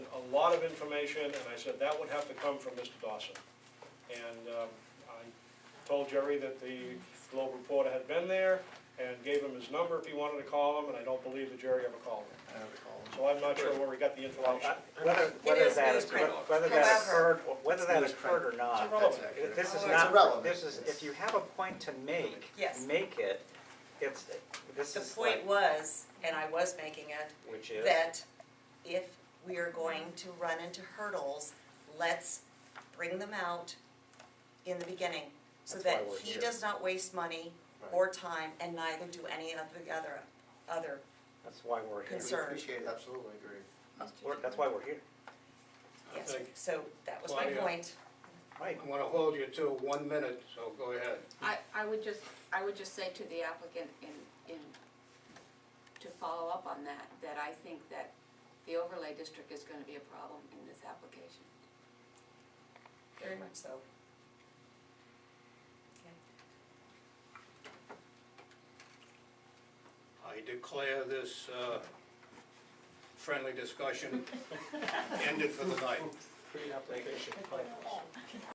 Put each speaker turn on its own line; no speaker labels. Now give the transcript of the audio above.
lot of information, and I said that would have to come from Mr. Dawson. And um, I told Jerry that the Globe reporter had been there and gave him his number if he wanted to call him, and I don't believe that Jerry ever called him.
I don't recall.
So I'm not sure where we got the information.
Whether, whether
is
that,
news
occurred-
print.
whether that
However-
occurred, whether that
News print.
occurred or not,
It's irrelevant.
That's
this is
It's
not,
irrelevant.
this is, if you have a point to make,
Yes.
make it, it's, this
The
is like,
point was, and I was making it,
which is.
that if we are going to run into hurdles, let's bring them out in the beginning. So
That's why
that
we're
he
here.
does not waste money or time and neither do any of the other, other,
That's why we're here,
Concern.
Appreciate it, absolutely agree.
We're- that's why we're here,
yes,
think-
so that was my
Claudia.
point.
Mike,
I'm gonna hold you to one minute, so go ahead.
I, I would just, I would just say to the applicant in, in, to follow up on that, that I think that the overlay district is gonna be a problem in this application.
Very much so.
I declare this uh, friendly discussion ended for the night.
pre-application.